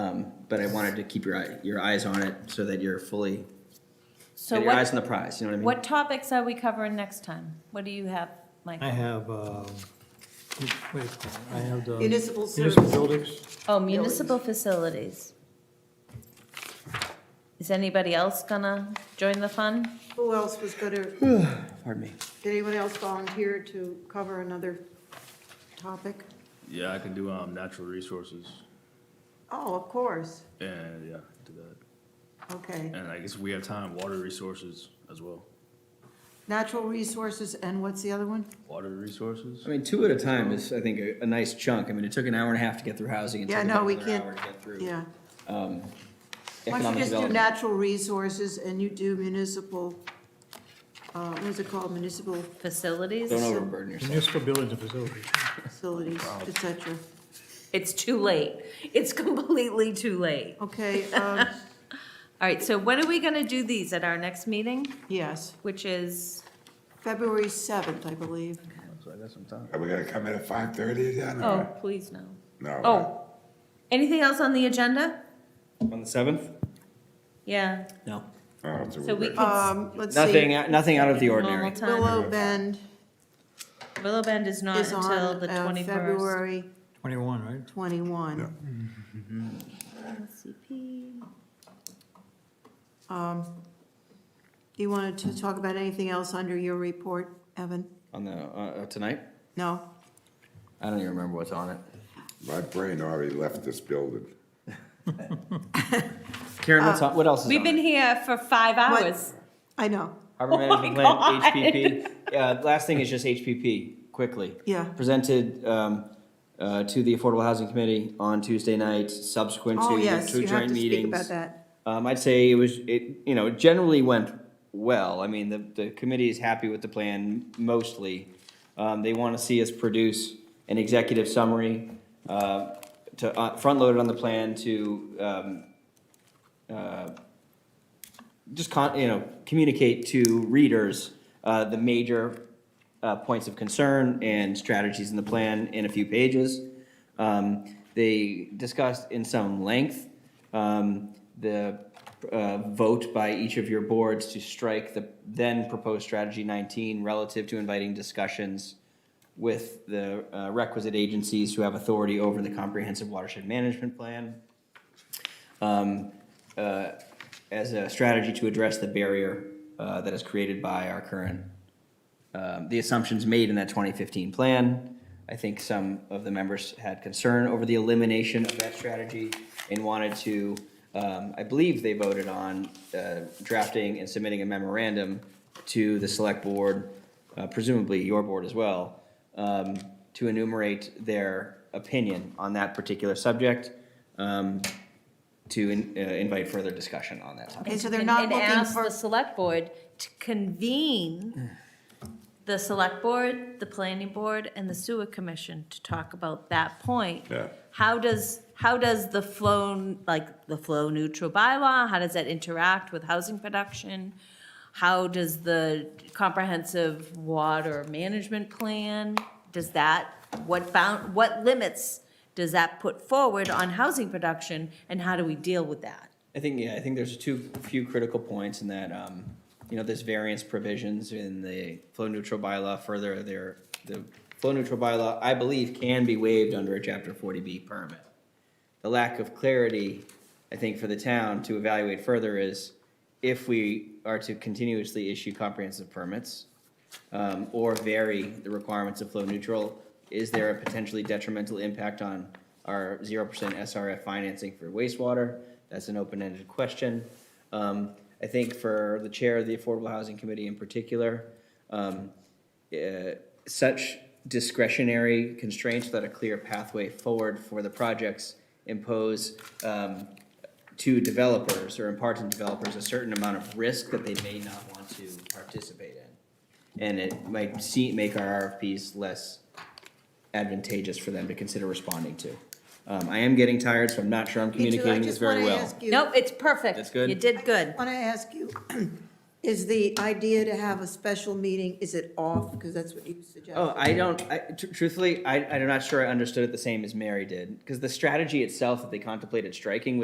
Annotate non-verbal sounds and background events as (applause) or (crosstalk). Um, but I wanted to keep your eye, your eyes on it so that you're fully, So get your eyes what, on the prize, you know what I mean? what topics are we covering next time? What do you have, Mike? I have, um, what do you call it? I have the. Municipal Municipal service. buildings. Oh, municipal facilities. Is anybody else gonna join the fun? Who else was gonna, did Pardon me. anyone else volunteer to cover another topic? Yeah, I can do um, natural resources, Oh, of course, and yeah, do that. okay. And I guess we have time, water resources as well. Natural resources, and what's the other one? Water resources. I mean, two at a time is, I think, a, a nice chunk. I mean, it took an hour and a half to get through housing. It Yeah, took no, about we another can't- hour to get through, Yeah. um, Why don't you economic just do development. natural resources and you do municipal, uh, what is it called, municipal Facilities? Don't overburden yourself. Municipal buildings and facilities. facilities, et cetera? It's too late. It's (laughs) completely too late. Okay, (laughs) um, All right, so when are we gonna do these? At our next meeting, yes, which is, February 7th, I believe. So I got some time. Are we gonna come in at five thirty then? oh, or- please no. No. Oh, anything else on the agenda? On the seventh? Yeah, No. Oh, so we good. can, Um, Let's Nothing, see, out- nothing out of the normal ordinary. time. Willow Bend Willow Bend is not is until on the uh, twenty-first. February Twenty-one, right? 21. Um, Do you want to talk about anything else under your report, Evan? On the, uh, uh, tonight? No? I don't even remember what's on it. My brain already left this building. Karen, what's Uh, on, what else is on We've been it? here for five What? hours. I know. Harbor Management my Plan, HPP. Yeah, last thing is just HPP, quickly. Yeah. Presented, um, uh, to the Affordable Housing Committee on Tuesday night, subsequent to Oh, two yes, you have joint to speak meetings. about that. Um, I'd say it was, it, you know, it generally went well. I mean, the, the committee is happy with the plan mostly. Um, they want to see us produce an executive summary, uh, to, uh, front-loaded on the plan to, um, uh, just con, you know, communicate to readers, uh, the major, uh, points of concern and strategies in the plan in a few pages. Um, they discussed in some length, um, the, uh, vote by each of your boards to strike the then proposed strategy nineteen relative to inviting discussions with the uh, requisite agencies who have authority over the comprehensive watershed management plan um, uh, as a strategy to address the barrier uh, that is created by our current, um, the assumptions made in that 2015 plan. I think some of the members had concern over the elimination of that strategy and wanted to, um, I believe they voted on uh, drafting and submitting a memorandum to the select board, uh, presumably your board as well, um, to enumerate their opinion on that particular subject. Um, to in- uh, invite further discussion on that topic. Okay, so they're And- not And looking ask the for, select board to convene the select board, the planning board, and the sewer commission to talk about that point. Yeah. How does, how does the flow, like, the flow neutral bylaw, how does that interact with housing production? How does the comprehensive water management plan, does that, what bound, what limits does that put forward on housing production, and how do we deal with that? I think, yeah, I think there's two, few critical points in that, um, you know, there's variance provisions in the flow neutral bylaw further there. The flow neutral bylaw, I believe, can be waived under a chapter forty B permit. The lack of clarity, I think, for the town to evaluate further is if we are to continuously issue comprehensive permits, um, or vary the requirements of flow neutral, is there a potentially detrimental impact on our zero percent SRF financing for wastewater? That's an open-ended question. Um, I think for the chair of the Affordable Housing Committee in particular, um, uh, such discretionary constraints without a clear pathway forward for the projects impose um, to developers or impart to developers a certain amount of risk that they may not want to participate in. And it might see, make our RFPs less advantageous for them to consider responding to. Um, I am getting tired, so I'm not sure I'm Me too, I communicating this just very want to well. ask you. Nope, it's perfect. That's good? You did good. Want to ask you, (clears throat) is the idea to have a special meeting, is it off? Because that's what you suggested. Oh, I don't, I, tr- truthfully, I, I'm not sure I understood it the same as Mary did, because the strategy itself that they contemplated striking was.